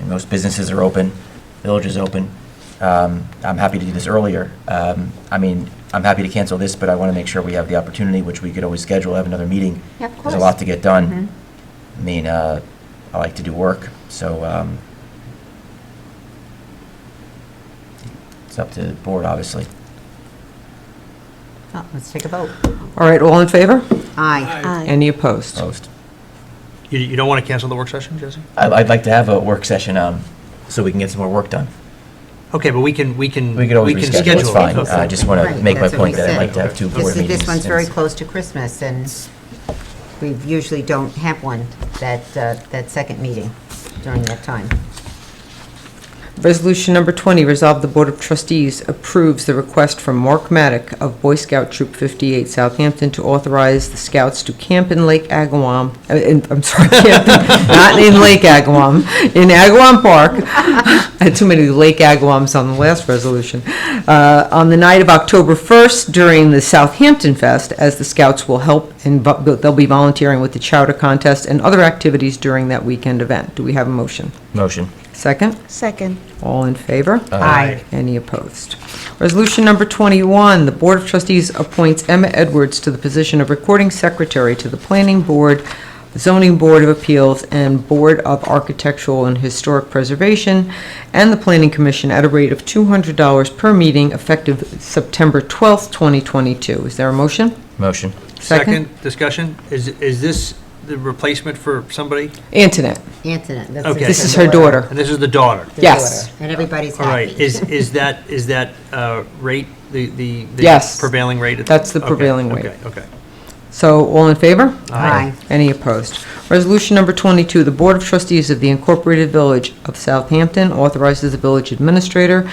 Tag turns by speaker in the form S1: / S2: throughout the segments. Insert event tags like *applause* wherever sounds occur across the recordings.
S1: and most businesses are open, village is open. Um, I'm happy to do this earlier. Um, I mean, I'm happy to cancel this, but I want to make sure we have the opportunity, which we could always schedule, have another meeting.
S2: Yeah, of
S1: There's a
S2: course.
S1: lot to get done.
S2: Mhm.
S1: I mean, uh, I like to do work, so um, it's up to the board, obviously.
S2: Oh, Let's take a vote.
S3: All right, all in favor?
S2: Aye.
S3: Any opposed?
S1: Opposed.
S4: You, you don't want to cancel the work session, Jesse?
S1: I- I'd like to have a work session um, so we can get some more work done.
S4: Okay, but we can, we can.
S1: We could always
S4: can
S1: reschedule, it's
S4: schedule it.
S1: fine. I just want to
S2: Right,
S1: make my
S2: that's what
S1: point
S2: we
S1: that I'd
S2: said.
S1: like to have two board
S2: This,
S1: meetings.
S2: this one's very
S1: and-
S2: close to Christmas, and we usually don't have one, that, uh, that second meeting during that time.
S3: Resolution number 20, resolve the Board of Trustees approves the request from Mark Maddock of Boy Scout Troop 58 Southampton to authorize the scouts to camp in Lake Agawam, uh, in- I'm sorry, *laughs* camp in- not in Lake Agawam, in Agawam Park. *laughs* I had too many Lake Agawams on the last resolution. Uh, On the night of October 1st during the Southampton Fest, as the scouts will help and vo- they'll be volunteering with the chowder contest and other activities during that weekend event. Do we have a motion?
S1: Motion.
S3: Second?
S5: Second.
S3: All in favor?
S2: Aye.
S3: Any opposed? Resolution number 21, the Board of Trustees appoints Emma Edwards to the position of Recording Secretary to the Planning Board, Zoning Board of Appeals, and Board of Architectural and Historic Preservation, and the Planning Commission at a rate of $200 per meeting effective September 12th, 2022. Is there a motion?
S1: Motion.
S3: Second.
S4: Second discussion, is, is this the replacement for somebody?
S3: Antoinette,
S2: Antoinette, that's.
S4: Okay.
S3: this is her daughter.
S4: And this is the daughter?
S2: The
S3: Yes.
S2: daughter. And everybody's
S4: All right,
S2: happy.
S4: is, is that, is that uh, rate, the, the? the
S3: Yes.
S4: Prevailing rate? at
S3: That's the
S4: okay,
S3: prevailing rate.
S4: Okay, okay.
S3: So, all in favor?
S2: Aye.
S3: Any opposed? Resolution number 22, the Board of Trustees of the Incorporated Village of Southampton authorizes the village administrator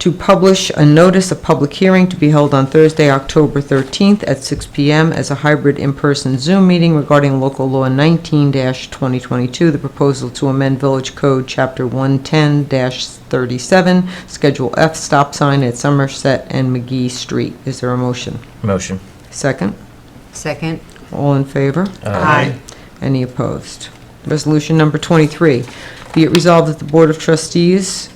S3: to publish a notice of public hearing to be held on Thursday, October 13th at 6 PM as a hybrid in-person Zoom meeting regarding local law 19-2022, the proposal to amend Village Code Chapter 110-37, Schedule F, stop sign at Somerset and McGee Street. Is there a motion?
S1: Motion.
S3: Second?
S2: Second.
S3: All in favor?
S1: Uh,
S2: Aye.
S3: Any opposed? Resolution number 23, be it resolved that the Board of Trustees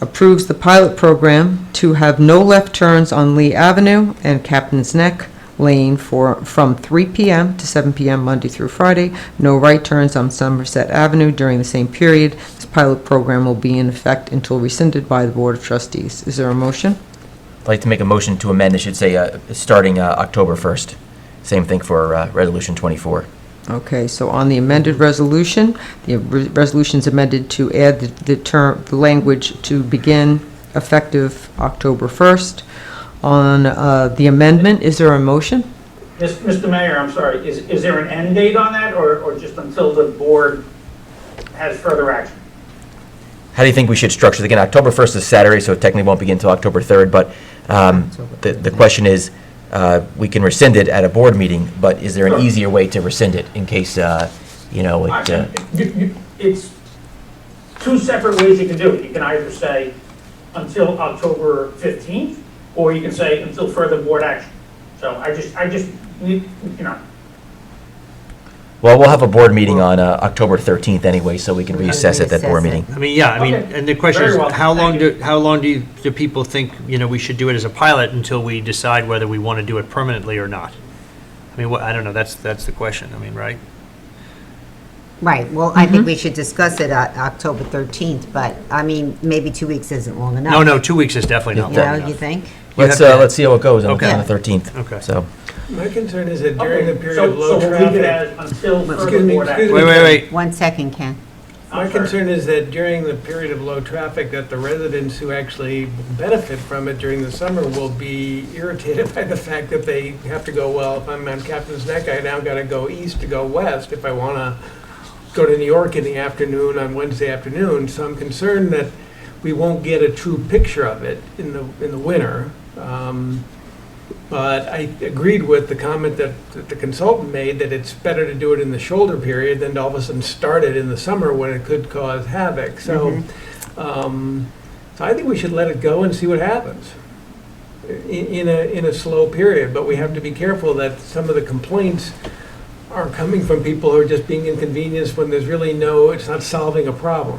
S3: approves the pilot program to have no left turns on Lee Avenue and Captain's Neck Lane for, from 3 PM to 7 PM Monday through Friday, no right turns on Somerset Avenue during the same period. This pilot program will be in effect until rescinded by the Board of Trustees. Is there a motion?
S1: I'd like to make a motion to amend, it should say, uh, starting uh, October 1st. Same thing for uh, Resolution 24.
S3: Okay, so on the amended resolution, the re- resolution's amended to add the- the term, the language to begin effective October 1st. On uh, the amendment, is there a motion?
S6: Yes, Mr. Mayor, I'm sorry, is, is there an end date on that, or, or just until the board has further action?
S1: How do you think we should structure it? Again, October 1st is Saturday, so it technically won't begin until October 3rd, but um, the the question is, uh, we can rescind it at a board meeting, but is there an easier way to rescind it in case, uh, you know,
S6: I
S1: it, uh,
S6: can- you- you- It's two separate ways you can do it. You can either say until October 15th, or you can say until further board action. So I just, I just, need- you know,
S1: well, we'll have a board meeting on uh, October 13th anyway, so we can
S2: We can
S1: reassess at that board
S2: reassess it.
S1: meeting.
S4: I mean, yeah, I mean,
S6: Okay.
S4: and the question
S6: Very
S4: is,
S6: well.
S4: how long
S6: Thank
S4: do, how long do, you- do people think, you know, we should do it as a pilot until we decide whether we want to do it permanently or not? I mean, what, I don't know, that's, that's the question, I mean, right?
S2: Right, well, I
S1: Mm-hmm.
S2: think we should discuss it on October 13th, but, I mean, maybe two weeks isn't long enough.
S4: No, no, two weeks is definitely not
S2: You
S4: long
S2: know, you
S4: enough.
S2: think?
S4: You
S1: Let's,
S4: have
S1: uh,
S4: to-
S1: let's see how it goes on
S4: Okay.
S1: on the 13th.
S4: Okay.
S1: So,
S7: My concern is that during the
S6: Okay,
S7: period
S6: so-
S7: of low
S6: So we'll leave it
S7: traffic,
S6: as until
S7: Excuse
S6: further
S7: me,
S6: board
S7: excuse
S6: action.
S4: Wait, wait, wait,
S2: One second, Ken.
S7: my
S6: I'm sorry.
S7: concern is that during the period of low traffic, that the residents who actually benefit from it during the summer will be irritated *laughs* by the fact that they have to go, well, if I'm on Captain's Neck, I now gotta go east to go west if I wanna go to New York in the afternoon on Wednesday afternoon. So I'm concerned that we won't get a true picture of it in the, in the winter. Um, But I agreed with the comment that that the consultant made, that it's better to do it in the shoulder period than to all of a sudden start it in the summer when it could cause havoc. So, um, so I think we should let it go and see what happens in, in a, in a slow period. But we have to be careful that some of the complaints are coming from people who are just being inconvenienced when there's really no, it's not solving a problem.